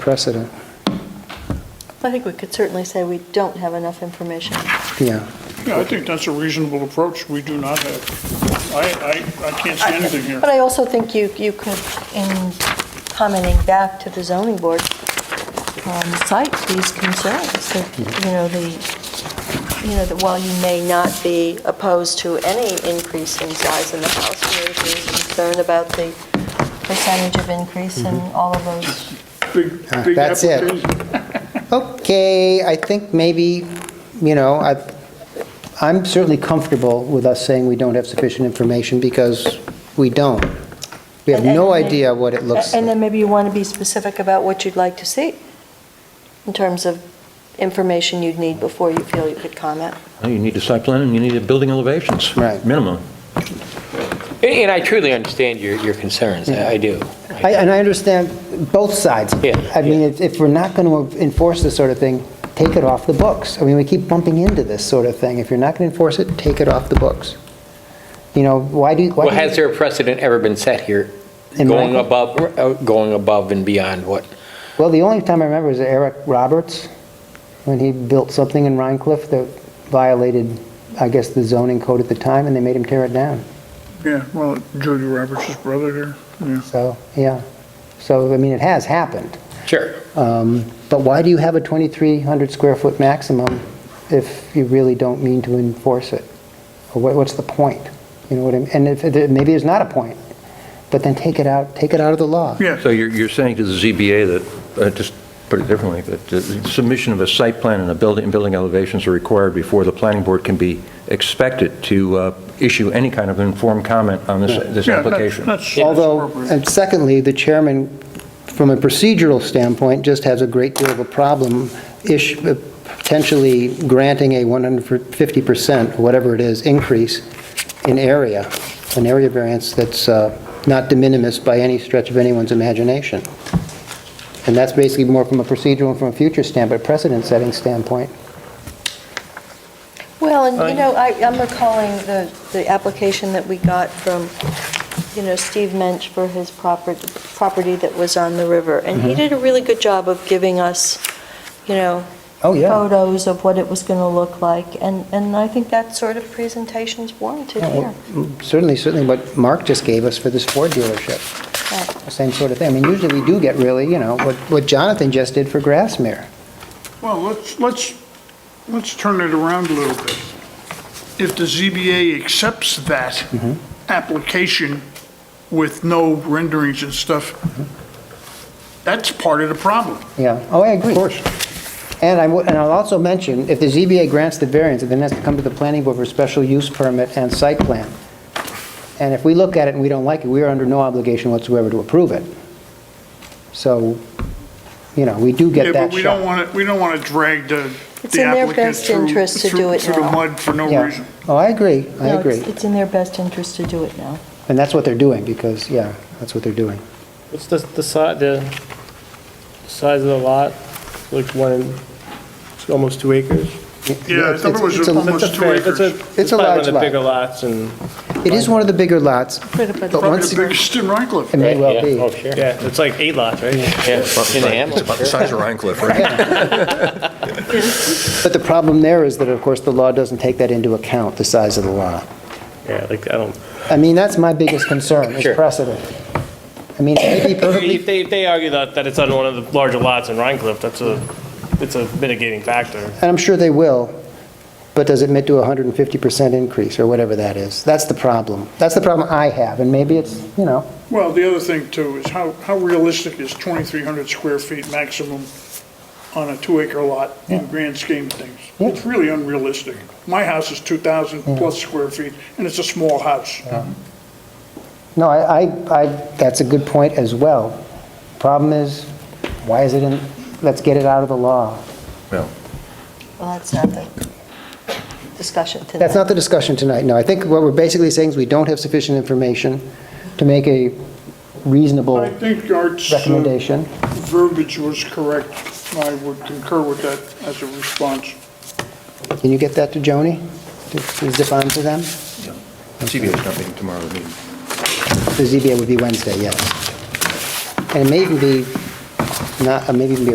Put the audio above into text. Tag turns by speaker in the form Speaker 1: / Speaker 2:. Speaker 1: precedent.
Speaker 2: I think we could certainly say we don't have enough information.
Speaker 1: Yeah,
Speaker 3: Yeah, I think that's a reasonable approach. We do not have, I, I, I can't see anything here.
Speaker 2: But I also think you, you could, in commenting back to the zoning board, um, cite these concerns, that, you know, the, you know, that while you may not be opposed to any increase in size in the house, there is concern about the percentage of increase and all of those.
Speaker 3: Big-
Speaker 1: Ah,
Speaker 3: big
Speaker 1: that's it.
Speaker 3: application.
Speaker 1: okay, I think maybe, you know, I, I'm certainly comfortable with us saying we don't have sufficient information because we don't. We have
Speaker 2: And- and
Speaker 1: no
Speaker 2: then-
Speaker 1: idea what it looks
Speaker 2: And
Speaker 1: like.
Speaker 2: then maybe you want to be specific about what you'd like to see, in terms of information you'd need before you feel you could comment.
Speaker 4: No, You need a site plan and you need a building elevations.
Speaker 1: Right.
Speaker 4: Minimum.
Speaker 5: And- And I truly understand your, your concerns, I I do.
Speaker 1: I- And I understand both sides.
Speaker 5: Yeah,
Speaker 1: I mean,
Speaker 5: yeah.
Speaker 1: if- if we're not going to enforce this sort of thing, take it off the books. I mean, we keep bumping into this sort of thing. If you're not going to enforce it, take it off the books. You know, why do, why
Speaker 5: Well,
Speaker 1: do you-
Speaker 5: has there a precedent ever been set here,
Speaker 1: In my-
Speaker 5: going above, uh, going above and beyond what?
Speaker 1: Well, the only time I remember is Eric Roberts, when he built something in Rhine Cliff that violated, I guess, the zoning code at the time, and they made him tear it down.
Speaker 3: Yeah, well, Julia Roberts' brother here, yeah.
Speaker 1: So, yeah. So, I mean, it has happened.
Speaker 5: Sure.
Speaker 1: Um, But why do you have a 2,300 square foot maximum if you really don't mean to enforce it? Or what- what's the point? You know what I mean? And if, there- maybe there's not a point, but then take it out, take it out of the law.
Speaker 3: Yeah,
Speaker 4: So you're, you're saying to the ZBA that, uh, just put it differently, that the submission of a site plan and a building, and building elevations are required before the planning board can be expected to uh, issue any kind of informed comment on this, this
Speaker 3: yeah, that-
Speaker 4: application.
Speaker 3: that's that's
Speaker 1: Although,
Speaker 3: appropriate.
Speaker 1: and secondly, the chairman, from a procedural standpoint, just has a great deal of a problem ish, uh, potentially granting a 150%, whatever it is, increase in area, an area variance that's uh, not de minimis by any stretch of anyone's imagination. And that's basically more from a procedural and from a future standpoint, precedent-setting standpoint.
Speaker 2: Well,
Speaker 3: Uh,
Speaker 2: and you know, I, I'm recalling the, the application that we got from, you know, Steve Mensch for his property, property that was on the river. And
Speaker 3: Mm-hmm.
Speaker 2: he did a really good job of giving us, you know,
Speaker 1: Oh,
Speaker 2: photos of what it was going to look like. And, and I think that sort of presentation's warranted here.
Speaker 1: Certainly, certainly what Mark just gave us for this Ford dealership. Same sort of thing. I mean, usually we do get really, you know, what what Jonathan just did for Grassmere.
Speaker 3: Well, let's, let's, let's turn it around a little bit. If the ZBA accepts that
Speaker 1: Mm-hmm.
Speaker 3: application with no renderings and stuff,
Speaker 1: Mm-hmm.
Speaker 3: that's part of the problem.
Speaker 1: Yeah, oh, I agree. Of course. And I, would- and I'll also mention, if the ZBA grants the variance, it then has to come to the planning board for special use permit and site plan. And if we look at it and we don't like it, we are under no obligation whatsoever to approve it. So, you know, we do get
Speaker 3: Yeah,
Speaker 1: that
Speaker 3: but we don't
Speaker 1: shot.
Speaker 3: want to, we don't want to drag the
Speaker 2: It's
Speaker 3: the
Speaker 2: in their
Speaker 3: applicant
Speaker 2: best
Speaker 3: through,
Speaker 2: interest to do
Speaker 3: through
Speaker 2: it
Speaker 3: through the
Speaker 2: now.
Speaker 3: mud for no
Speaker 1: Yeah.
Speaker 3: reason.
Speaker 1: Oh, I agree, I
Speaker 2: No,
Speaker 1: agree.
Speaker 2: it's- It's in their best interest to do it now.
Speaker 1: And that's what they're doing, because, yeah, that's what they're doing.
Speaker 6: What's the, the size, the size of the lot? Like one, and- it's almost two acres?
Speaker 3: Yeah, I thought it
Speaker 1: it's-
Speaker 3: was
Speaker 1: it's a-
Speaker 6: That's a
Speaker 3: almost two
Speaker 6: fair- that's a-
Speaker 3: acres.
Speaker 1: It's a
Speaker 6: probably
Speaker 1: large
Speaker 6: One of the
Speaker 1: lot.
Speaker 6: bigger lots and,
Speaker 1: It is one of the bigger lots, but
Speaker 3: Probably
Speaker 1: once,
Speaker 3: the
Speaker 1: it
Speaker 3: biggest in Rhine Cliff.
Speaker 1: may
Speaker 5: Right,
Speaker 1: well
Speaker 5: yeah.
Speaker 1: be.
Speaker 5: Oh, sure.
Speaker 6: yeah, it's like eight lots, right?
Speaker 5: Yeah, in the
Speaker 4: It's about the
Speaker 5: Hamptons, sure.
Speaker 4: size of Rhine Cliff, right?
Speaker 1: But the problem there is that, of course, the law doesn't take that into account, the size of the lot.
Speaker 6: Yeah, like, I don't,
Speaker 1: I mean, that's my biggest concern, is
Speaker 5: Sure.
Speaker 1: precedent. I mean, it may be
Speaker 6: if
Speaker 1: perfectly,
Speaker 6: they, if they argue that, that it's on one of the larger lots in Rhine Cliff, that's a, it's a mitigating factor.
Speaker 1: and I'm sure they will, but does it admit to a 150% increase, or whatever that is? That's the problem. That's the problem I have, and maybe it's, you know,
Speaker 3: Well, the other thing too is how, how realistic is 2,300 square feet maximum on a two-acre lot in grand scheme of things?
Speaker 1: Yeah.
Speaker 3: It's really unrealistic. My house is 2,000 plus square feet, and it's a small house.
Speaker 1: no, I, I, I. that's a good point as well. Problem is, why is it in, let's get it out of the law.
Speaker 2: Well, that's not the discussion tonight.
Speaker 1: That's not the discussion tonight, no. I think what we're basically saying is we don't have sufficient information to make a
Speaker 3: I
Speaker 1: reasonable
Speaker 3: think Art's uh,
Speaker 1: recommendation.
Speaker 3: verbiage was correct. I would concur with that as a response.
Speaker 1: Can you get that to Joni? To- to Zip on to them?
Speaker 4: ZBA is not meeting tomorrow, they're meeting
Speaker 1: The ZBA would be Wednesday, yes. And it may even be not, uh, maybe even be